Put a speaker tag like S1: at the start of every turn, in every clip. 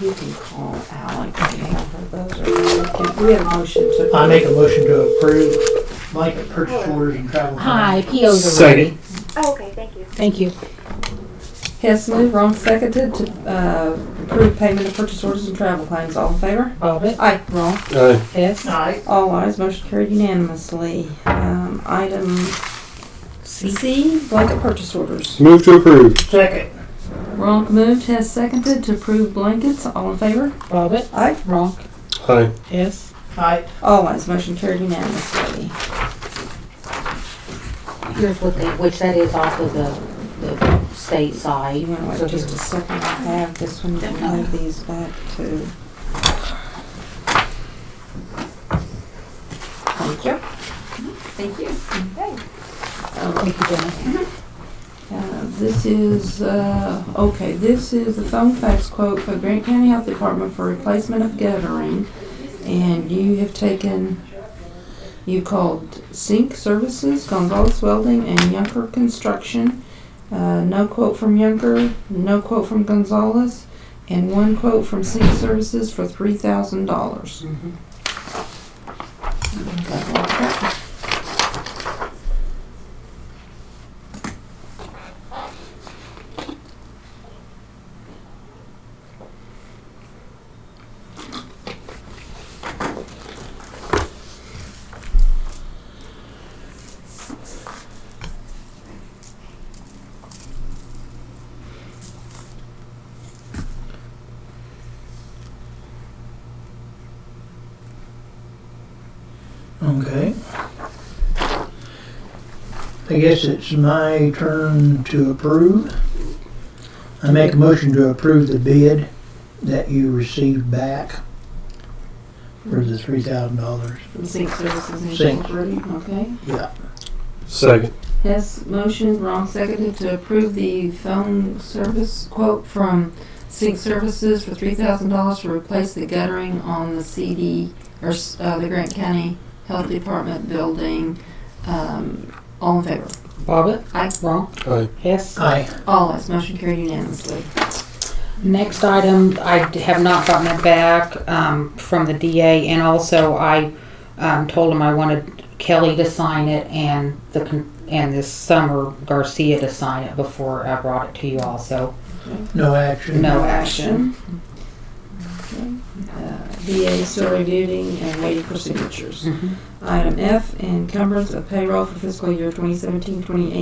S1: you can call Alex and have her those are, really good. we have motions. to-
S2: I make a motion to approve blanket purchase orders and travel.
S3: Hi, POs are
S4: Second.
S3: ready.
S5: Oh, okay, thank you.
S3: Thank you.
S1: Hess moved, Ron seconded to, uh, approve payment of purchase orders and travel claims. All in favor?
S3: Bobbit,
S1: Aye. Wrong.
S4: Aye.
S3: Hess,
S2: Aye.
S1: All ayes, motion carried unanimously. Um, item C, blanket purchase orders.
S4: Move to approve.
S2: Second.
S1: Ronk moved, Hess seconded to approve blankets. All in favor?
S3: Bobbit,
S1: Aye.
S3: Ronk,
S4: Aye.
S3: Hess.
S2: Aye.
S1: All ayes, motion carried unanimously.
S3: Here's what they, which that is off of the, the state
S1: You
S3: side.
S1: wanna wait
S3: So
S1: just a
S3: here.
S1: second, I have this one, then we'll move these back to. Thank you.
S5: Thank you.
S3: Thank you, Jenna.
S1: Uh, This is, uh, okay, this is the phone fax quote for Grant County Health Department for replacement of guttering. And you have taken, you called Sink Services, Gonzalez Welding, and Yunker Construction. Uh, no quote from Yunker, no quote from Gonzalez, and one quote from Sink Services for three thousand dollars.
S2: Okay. I guess it's my turn to approve. I make a motion to approve the bid that you received back for the three thousand dollars.
S1: From Sink Services
S2: Sink.
S1: Incorporated, okay?
S2: Yeah.
S4: Second.
S1: Hess motion, Ron seconded to approve the phone service quote from Sync Services for three thousand dollars to replace the guttering on the CD, or, s- uh, the Grant County Health Department building. Um, all in favor?
S3: Bobbit,
S1: Aye.
S3: Ronk,
S4: Aye.
S3: Hess.
S2: Aye.
S1: All ayes, motion carried unanimously.
S3: Next item, I have not gotten it back um, from the DA, and also I um, told him I wanted Kelly to sign it and the con- and this summer Garcia to sign it before I brought it to you all. So
S2: No action.
S3: No action.
S1: Uh, VA still reviewing and waiting for signatures. Item F, encumbrance of payroll for fiscal year 2017-2018.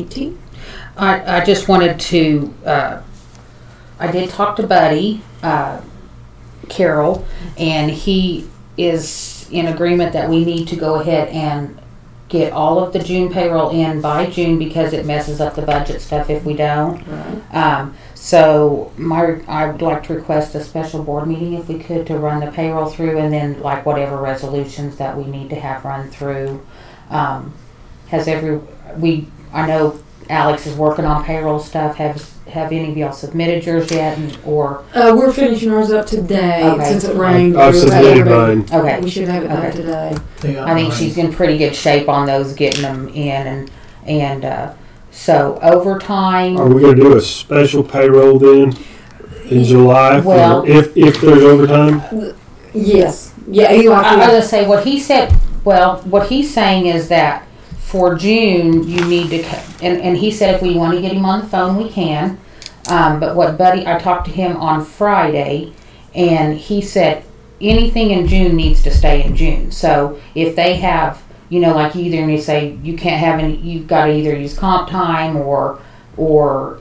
S3: I, I just wanted to uh, I did talk to Buddy uh, Carroll, and he is in agreement that we need to go ahead and get all of the June payroll in by June because it messes up the budget stuff if we don't.
S1: Right.
S3: Um, so my, I would like to request a special board meeting if we could to run the payroll through and then like whatever resolutions that we need to have run through. Um, has every, we, I know Alex is working on payroll stuff. Have, have any of y'all submitted yours yet and- or,
S1: Uh, we're finishing ours up today,
S3: Okay.
S1: Oh, since it rained.
S4: I've
S1: we were
S4: submitted
S1: ready.
S4: mine.
S3: okay.
S1: We should have it done
S3: Okay.
S1: today.
S2: Yeah,
S3: I think
S2: aye.
S3: she's in pretty good shape on those, getting them in and, and, uh, so overtime.
S4: Are we gonna do a special payroll then in July
S3: Well-
S4: for if, if there's overtime?
S1: Yes. Yeah, you
S3: I- I was gonna say what he said. Well, what he's saying is that for June you need to, c- and, and he said if we want to get him on the phone we can. Um, but what Buddy, I talked to him on Friday, and he said anything in June needs to stay in June. So if they have, you know, like either and you say you can't have any, you've got to either use comp time or or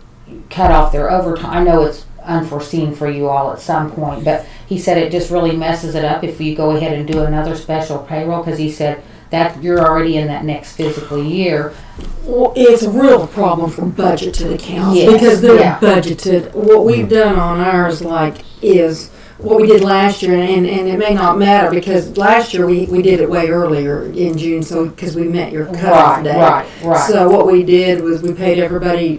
S3: cut off their overtime. I know it's unforeseen for you all at some point, but he said it just really messes it up if you go ahead and do another special payroll because he said that you're already in that next fiscal year.
S1: Well, it's a real problem for budgeted accounts
S3: Yes,
S1: because they're
S3: yeah.
S1: budgeted. What we've done on ours, like, is what we did last year, and, and it may not matter because last year we, we did it way earlier in June, so because we met your cutoff
S3: Right,
S1: date.
S3: right, right.
S1: So what we did was we paid everybody